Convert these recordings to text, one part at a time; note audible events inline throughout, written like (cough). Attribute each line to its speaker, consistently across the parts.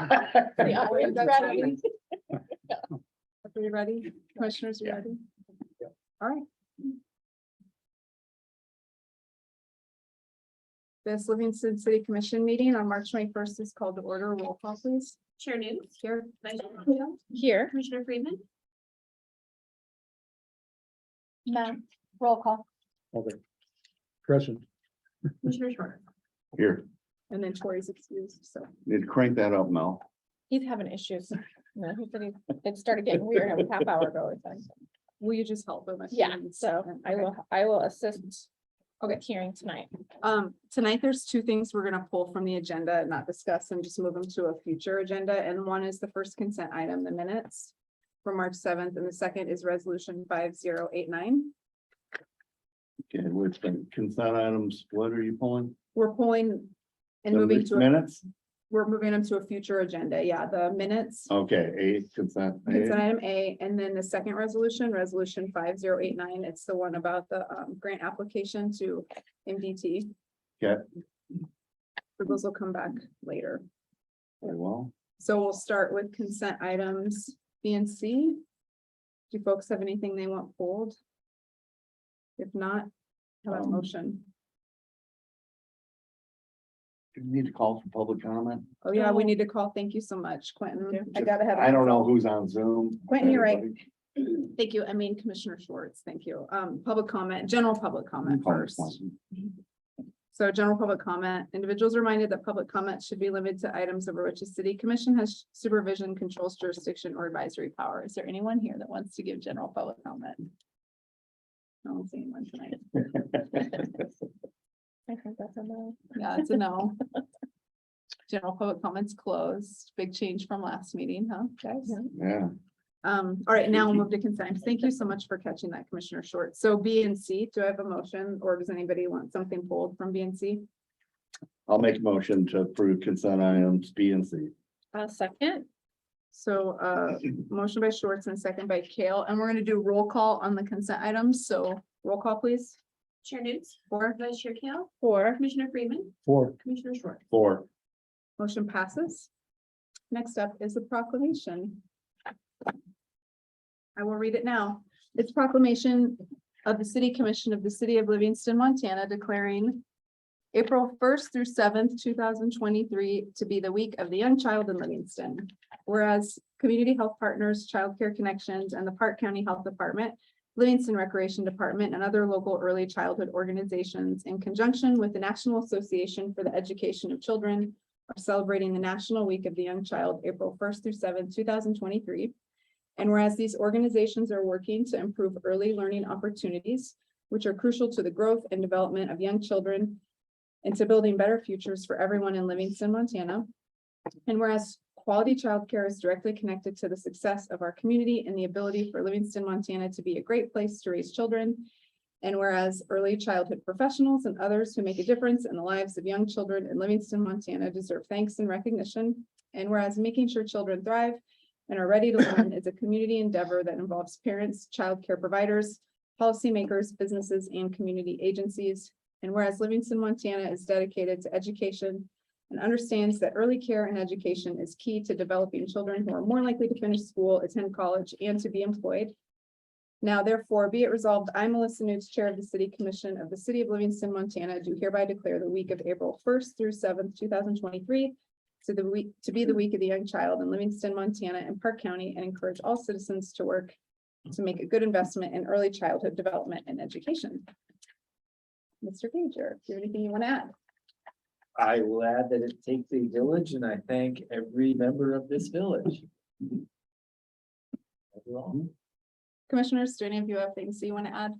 Speaker 1: Yeah,
Speaker 2: Are you
Speaker 1: that's
Speaker 2: ready?
Speaker 3: (laughs)
Speaker 1: right.
Speaker 2: Are we ready? Commissioners, you
Speaker 1: Yeah.
Speaker 2: ready? All right. This Livingston City Commission meeting on March twenty-first is called to order. Roll call, please.
Speaker 4: Chair News,
Speaker 2: Here.
Speaker 4: Vice Chair,
Speaker 2: Here.
Speaker 4: Commissioner Freeman,
Speaker 2: No. Roll call.
Speaker 1: Okay. Present.
Speaker 4: Commissioner Shorter.
Speaker 3: Here,
Speaker 2: And then Tori's excused, so.
Speaker 3: need to crank that up, Mel.
Speaker 5: He's having issues. No, he said he- It started getting weird a half hour ago. or something.
Speaker 2: Will you just help him? if he
Speaker 5: Yeah,
Speaker 2: needs-
Speaker 5: so I will, I will assist.
Speaker 2: Okay.
Speaker 5: Okay, hearing tonight.
Speaker 2: Um, tonight, there's two things we're gonna pull from the agenda, and not discuss and just move them to a future agenda, and one is the first consent item, the minutes. For March seventh, and the second is resolution five zero eight nine.
Speaker 3: Okay, which consent items, what are you pulling?
Speaker 2: We're pulling. And
Speaker 3: The
Speaker 2: moving to, a-
Speaker 3: Minutes?
Speaker 2: we're moving them to a future agenda, yeah, the minutes.
Speaker 3: Okay, eight consent.
Speaker 2: Consent item A, and then the second resolution, resolution five zero eight nine, it's the one about the um grant application to MDT.
Speaker 3: Okay.
Speaker 2: So Those will come back later.
Speaker 3: Very well.
Speaker 2: So we'll start with consent items B and C. Do folks have anything they want pulled? If not, how about a
Speaker 3: Um,
Speaker 2: motion?
Speaker 3: Do you Need to call for public comment?
Speaker 2: Oh, yeah, we need to call. Thank you so much, Quentin. I gotta have.
Speaker 3: I don't know who's on Zoom.
Speaker 2: Quentin, you're right.
Speaker 3: Everybody.
Speaker 2: Thank you. I mean, Commissioner Schwartz, thank you. Um, public comment, general public comment
Speaker 3: Call
Speaker 2: first.
Speaker 3: this one.
Speaker 2: So general public comment, individuals are reminded that public comment should be limited to items over which the city commission has supervision, controls jurisdiction or advisory power. Is there anyone here that wants to give general public comment? I don't see anyone tonight.
Speaker 5: I heard that's a no.
Speaker 2: Yeah, it's a no. General public comments closed. Big change from last meeting, huh, guys?
Speaker 3: (laughs) Yeah,
Speaker 2: Um, all right, now we'll move to consent. Thank you so much for catching that, Commissioner Short. So B and C, do I have a motion or does anybody want something pulled from B and C?
Speaker 3: I'll make a motion to approve consent items B and C.
Speaker 5: A second,
Speaker 2: So, uh, motion by Schwartz and a second by Kale, and we're gonna do roll call on the consent items, so roll call, please.
Speaker 4: Chair News,
Speaker 2: Four,
Speaker 4: Vice Chair Kale,
Speaker 5: or
Speaker 4: Commissioner Freeman,
Speaker 1: Four.
Speaker 4: Commissioner Short.
Speaker 3: Four.
Speaker 2: motion passes. Next up is the proclamation. I will read it now. It's proclamation of the City Commission of the City of Livingston, Montana declaring April first through seventh, two thousand twenty-three to be the week of the young child in Livingston. Whereas Community Health Partners, Child Care Connections, and the Park County Health Department, Livingston Recreation Department, and other local early childhood organizations in conjunction with the National Association for the Education of Children are celebrating the National Week of the Young Child, April first through seventh, two thousand twenty-three. And whereas these organizations are working to improve early learning opportunities, which are crucial to the growth and development of young children and to building better futures for everyone in Livingston, Montana. And whereas quality childcare is directly connected to the success of our community and the ability for Livingston, Montana to be a great place to raise children. And whereas early childhood professionals and others who make a difference in the lives of young children in Livingston, Montana deserve thanks and recognition. And whereas making sure children thrive and are ready to learn is a community endeavor that involves parents, childcare providers, policymakers, businesses, and community agencies. And whereas Livingston, Montana is dedicated to education and understands that early care and education is key to developing children who are more likely to finish school, attend college, and to be employed. Now therefore be it resolved, I, Melissa Nudes, Chair of the City Commission of the City of Livingston, Montana, do hereby declare the week of April first through seventh, two thousand twenty-three to the week, to be the week of the young child in Livingston, Montana and Park County, and encourage all citizens to work to make a good investment in early childhood development and education. Mr. Gager, do you have anything you want to add?
Speaker 6: I will add that it takes a village and I thank every member of this village. Overall.
Speaker 2: Commissioners, do any of you have things that you want to add?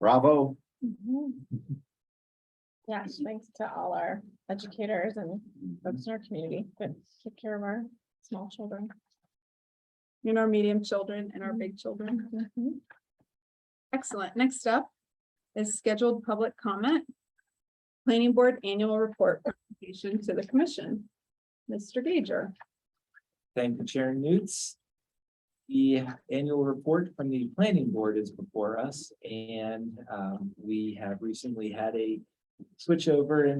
Speaker 3: Bravo.
Speaker 5: yes, Mm-hmm. thanks to all our educators and folks in our community that take care of our small children.
Speaker 2: You know, our medium children and our big children.
Speaker 5: Mhm.
Speaker 2: Excellent. Next up is scheduled public comment. Planning Board Annual Report presentation to the commission. Mr. Gager.
Speaker 6: Thank you, Chair Newts. The annual report from the planning board is before us and um, we have recently had a switchover in